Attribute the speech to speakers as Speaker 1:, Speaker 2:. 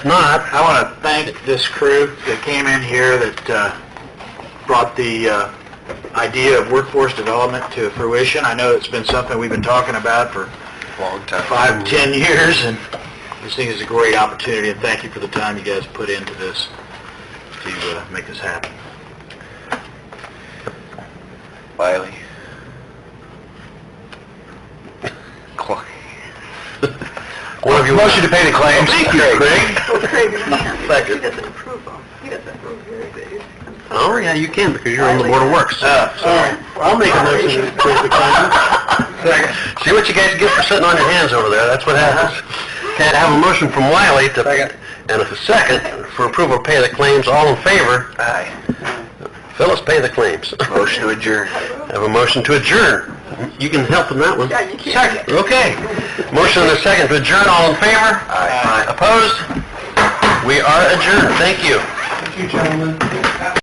Speaker 1: not, I want to thank this crew that came in here that uh, brought the uh, idea of workforce development to fruition. I know it's been something we've been talking about for
Speaker 2: Long time.
Speaker 1: five, 10 years, and this thing is a great opportunity, and thank you for the time you guys put into this to uh, make this happen.
Speaker 2: Wiley. Cla-
Speaker 1: Motion to pay the claims. Thank you,
Speaker 3: Well, Craig can't.
Speaker 1: Second.
Speaker 3: He doesn't approve them. He doesn't approve your bids.
Speaker 1: Oh, yeah, you can, because you're
Speaker 3: on the Board of
Speaker 1: Works. Uh, Sorry. I'll make a motion to approve the claims. See what you guys get for sitting on your hands over there, that's what
Speaker 2: Uh-huh.
Speaker 1: happens. Okay, I have a motion from Wiley to, and a second for approval to pay the claims, all in favor? Aye. Phyllis, pay the claims.
Speaker 2: Motion to adjourn.
Speaker 1: Have a motion to adjourn. You can help in that one.
Speaker 3: Yeah, you can.
Speaker 1: Second, okay. Motion and a second to adjourn, all in favor? Aye. Opposed? We are adjourned, thank you.
Speaker 4: Thank you, gentlemen.